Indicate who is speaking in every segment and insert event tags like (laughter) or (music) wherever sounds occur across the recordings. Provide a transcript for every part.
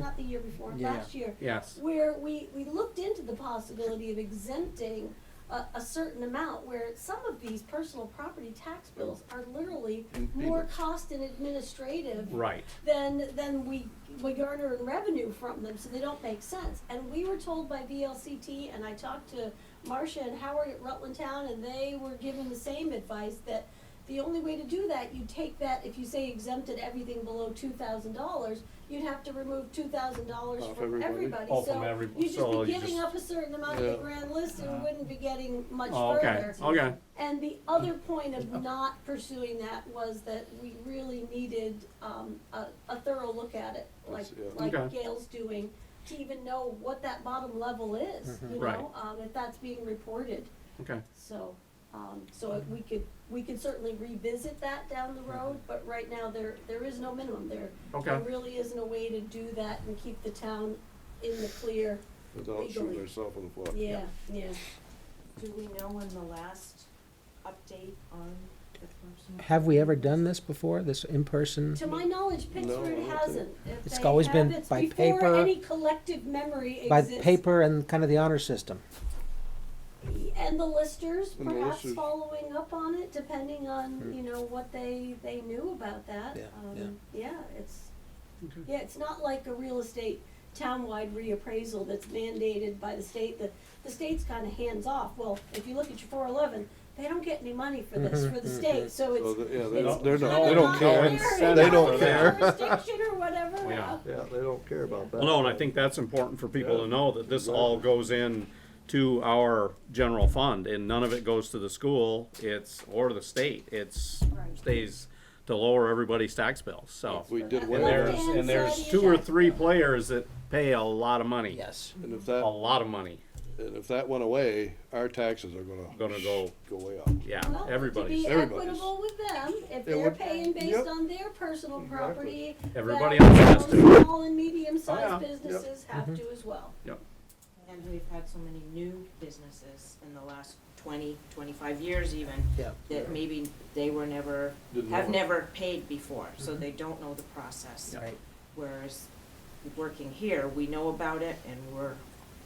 Speaker 1: not the year before,
Speaker 2: Yeah.
Speaker 1: last year,
Speaker 2: Yes.
Speaker 1: where we, we looked into the possibility of exempting a, a certain amount, where some of these personal property tax bills are literally
Speaker 2: And
Speaker 1: more
Speaker 2: payments.
Speaker 1: cost and administrative
Speaker 2: Right.
Speaker 1: than, than we, we garner in revenue from them, so they don't make sense. And we were told by VLCT, and I talked to Marcia and Howard at Rutland Town, and they were given the same advice, that the only way to do that, you take that, if you say exempted everything below two thousand dollars, you'd have to remove two thousand dollars
Speaker 2: Off
Speaker 1: from
Speaker 2: everybody.
Speaker 1: everybody,
Speaker 3: Oh, from
Speaker 1: so
Speaker 3: everybody.
Speaker 1: you'd just
Speaker 3: So
Speaker 1: be
Speaker 3: you
Speaker 1: giving
Speaker 3: just-
Speaker 1: up a certain amount of
Speaker 2: Yeah.
Speaker 1: the grand list, and
Speaker 2: Uh-huh.
Speaker 3: Uh.
Speaker 1: wouldn't be getting much further.
Speaker 2: Oh, okay, okay.
Speaker 1: And the other point of not pursuing that was that we really needed, um, a, a thorough look at it, like,
Speaker 4: That's- yeah.
Speaker 1: like
Speaker 2: Okay.
Speaker 1: Gail's doing, to even know what that bottom level is,
Speaker 2: Mhm.
Speaker 1: you
Speaker 2: Right.
Speaker 1: know, um, if that's being reported,
Speaker 2: Okay.
Speaker 1: so, um, so if we could, we could certainly revisit that down the road, but right now, there, there is no minimum there. There
Speaker 2: Mm-hmm. Okay.
Speaker 1: really isn't a way to do that and keep the town in the clear,
Speaker 4: Without shooting
Speaker 1: Legally.
Speaker 4: herself in the foot.
Speaker 1: yeah, yeah.
Speaker 5: Do we know when the last update on the person?
Speaker 6: Have we ever done this before, this in-person?
Speaker 1: To my knowledge,
Speaker 4: No, I
Speaker 1: Pittsburgh
Speaker 4: don't think-
Speaker 1: hasn't. If
Speaker 6: It's
Speaker 1: they
Speaker 6: always
Speaker 1: have,
Speaker 6: been
Speaker 1: it's
Speaker 6: by
Speaker 1: Before
Speaker 6: paper-
Speaker 1: any collective memory
Speaker 6: By
Speaker 1: exists.
Speaker 6: paper and kind of the honor system?
Speaker 1: And the listers
Speaker 4: And the
Speaker 1: perhaps
Speaker 4: listers.
Speaker 1: following up on it, depending on,
Speaker 6: Hmm.
Speaker 1: you know, what they, they knew about that.
Speaker 6: Yeah,
Speaker 1: Um, Yeah, it's, yeah, it's not like a real estate townwide reappraisal that's mandated by the state, that the state's kinda hands off. Well, if you look at your four eleven, they don't get any money for this,
Speaker 6: Mhm,
Speaker 1: for the
Speaker 6: mhm.
Speaker 1: state, so
Speaker 4: So,
Speaker 1: it's.
Speaker 4: the- yeah, they don't,
Speaker 1: it's
Speaker 4: they're not,
Speaker 1: kinda
Speaker 4: they
Speaker 1: not
Speaker 4: don't
Speaker 1: their-
Speaker 4: care.
Speaker 1: it's
Speaker 2: They
Speaker 1: not
Speaker 2: don't
Speaker 1: their
Speaker 2: care.
Speaker 1: Jurisdiction or whatever.
Speaker 2: Yeah.
Speaker 4: Yeah, they don't care about that.
Speaker 2: No, and I think that's important for people to
Speaker 4: Yeah.
Speaker 2: know that this all goes in to our general fund and none of it goes to the school, it's, or the state, it's,
Speaker 5: Right.
Speaker 2: stays to lower everybody's tax bills, so.
Speaker 4: We did
Speaker 2: And
Speaker 1: Well,
Speaker 4: well,
Speaker 2: there's,
Speaker 4: and
Speaker 1: and
Speaker 2: and
Speaker 1: so
Speaker 2: there's
Speaker 1: do
Speaker 2: two
Speaker 1: you
Speaker 2: or
Speaker 1: guys.
Speaker 2: three players that pay a lot of money.
Speaker 6: Yes.
Speaker 4: if
Speaker 2: A
Speaker 4: that,
Speaker 2: lot of money,
Speaker 4: and if that went away, our taxes are gonna.
Speaker 2: Gonna go-
Speaker 4: Go way up.
Speaker 2: yeah,
Speaker 1: Well,
Speaker 2: everybody's,
Speaker 1: To be
Speaker 4: Everybody's.
Speaker 1: equitable with them, if
Speaker 4: It
Speaker 1: they're
Speaker 4: would-
Speaker 1: paying based
Speaker 4: Yep.
Speaker 1: on their personal property.
Speaker 2: Everybody
Speaker 1: that
Speaker 2: else has to. Mm-hmm.
Speaker 1: Small and
Speaker 2: Oh,
Speaker 1: medium-sized
Speaker 2: yeah. Yep.
Speaker 1: businesses have to as well.
Speaker 5: And we've had so many new businesses in the last 20, 25 years even,
Speaker 6: Yeah.
Speaker 5: that maybe they were never,
Speaker 4: Didn't know
Speaker 5: have
Speaker 4: it.
Speaker 5: never paid before, so
Speaker 4: Mm-hmm.
Speaker 5: they don't know the process.
Speaker 6: Right.
Speaker 5: Whereas working here, we know about it and we're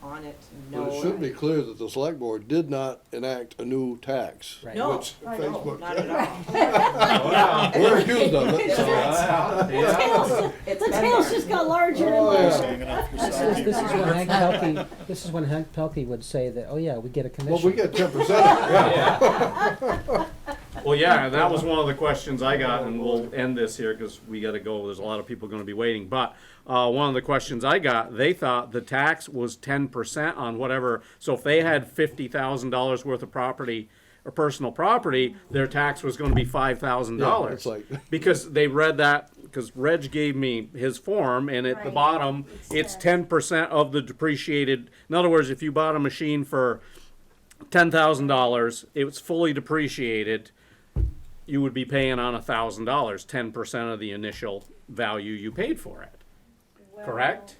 Speaker 5: on it and know.
Speaker 4: But it should be clear that the select board did not enact a new tax.
Speaker 6: Right.
Speaker 5: No,
Speaker 4: Which
Speaker 5: I know,
Speaker 4: Facebook-
Speaker 5: not at
Speaker 4: (laughs)
Speaker 5: all.
Speaker 1: (laughs)
Speaker 4: We're accused of it, so.
Speaker 5: (laughs)
Speaker 1: Tails,
Speaker 5: It's
Speaker 1: the
Speaker 5: been
Speaker 1: tails
Speaker 5: there.
Speaker 1: just got larger and
Speaker 4: Oh,
Speaker 1: larger.
Speaker 4: yeah.
Speaker 6: This is, this is when Hank Pelkey, this is when Hank Pelkey would say that, oh yeah, we get a commission.
Speaker 4: Well, we get ten percent.
Speaker 2: Well, yeah, and that was one of the questions I got, and we'll end this here, cause we gotta go, there's a lot of people gonna be waiting, but, uh, one of the questions I got, they thought the tax was ten percent on whatever, so if they had fifty thousand dollars worth of property, or personal property, their tax was gonna be five thousand
Speaker 4: Yeah,
Speaker 2: dollars.
Speaker 4: it's like-
Speaker 2: Because they read that, cause Reg gave me his form, and at the
Speaker 1: Right.
Speaker 2: bottom,
Speaker 1: It
Speaker 2: it's
Speaker 1: says.
Speaker 2: ten percent of the depreciated, in other words, if you bought a machine for ten thousand dollars, it was fully depreciated, you would be paying on a thousand dollars, ten percent of the initial value you paid for it, correct?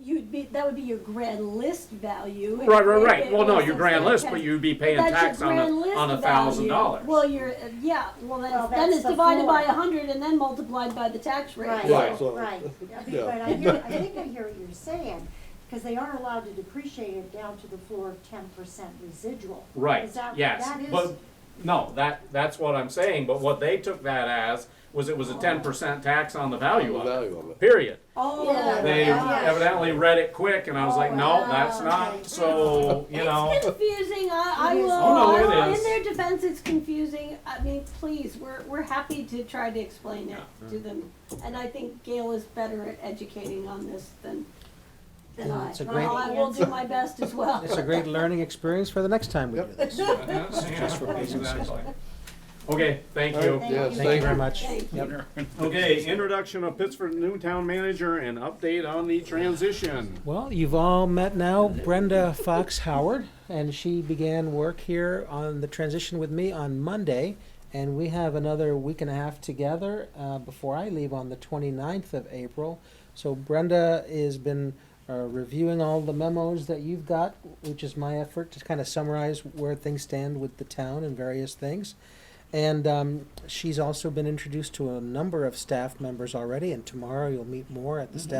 Speaker 1: You'd be, that would be your grand list value.
Speaker 2: Right, right,
Speaker 1: If-
Speaker 2: right,
Speaker 1: if
Speaker 2: well,
Speaker 1: it
Speaker 2: no,
Speaker 1: was
Speaker 2: your
Speaker 1: a
Speaker 2: grand list, but
Speaker 1: tax.
Speaker 2: you'd be paying
Speaker 1: That's your
Speaker 2: tax on
Speaker 1: grand
Speaker 2: a,
Speaker 1: list
Speaker 2: on a
Speaker 1: value.
Speaker 2: thousand dollars.
Speaker 1: Well, you're, uh, yeah, well, that's,
Speaker 7: Well,
Speaker 1: then
Speaker 7: that's
Speaker 1: it's
Speaker 7: the
Speaker 1: divided by a
Speaker 7: floor.
Speaker 1: hundred and then multiplied by the tax rate.
Speaker 7: Right,
Speaker 4: Yeah,
Speaker 7: (laughs) right.
Speaker 4: so-
Speaker 7: But
Speaker 4: Yeah.
Speaker 7: I hear, I think I hear what you're saying, because they are allowed to depreciate it down to the floor of ten percent residual.
Speaker 2: Right,
Speaker 7: Is that-
Speaker 2: yes,
Speaker 7: that is-
Speaker 2: but, no, that, that's what I'm saying, but what they took that as was it was a ten percent tax on the value
Speaker 4: The
Speaker 2: of it,
Speaker 4: value of it.
Speaker 2: period.
Speaker 7: Yeah.
Speaker 2: They
Speaker 7: Yeah.
Speaker 2: evidently read it quick and I was like, no, that's
Speaker 7: Oh, okay.
Speaker 2: not, so, you know.
Speaker 7: (laughs)
Speaker 2: (laughs)
Speaker 1: It's confusing. I, I
Speaker 7: It is.
Speaker 1: will.
Speaker 7: Oh,
Speaker 2: no,
Speaker 1: I
Speaker 2: it
Speaker 1: will.
Speaker 2: is.
Speaker 1: In their defense, it's confusing. I mean, please, we're, we're happy to try to explain it to them. And I think Gail is better at educating on this than, than I.
Speaker 6: It's a
Speaker 7: great-
Speaker 1: Well, I will do my best as well.
Speaker 6: It's a great learning experience for the next time we do
Speaker 4: Yep.
Speaker 6: this.
Speaker 2: Okay, thank you.
Speaker 4: Yes,
Speaker 6: Thank you very much.
Speaker 1: Thank
Speaker 6: Yep.
Speaker 2: Okay, introduction of Pittsford new town manager and update on the transition.
Speaker 6: Well, you've all met now Brenda Fox Howard, and she began work here on the transition with me on Monday. And we have another week and a half together uh, before I leave on the 29th of April. So Brenda has been uh, reviewing all the memos that you've got, which is my effort to kind of summarize where things stand with the town and various things. And um, she's also been introduced to a number of staff members already, and tomorrow you'll meet more at the staff.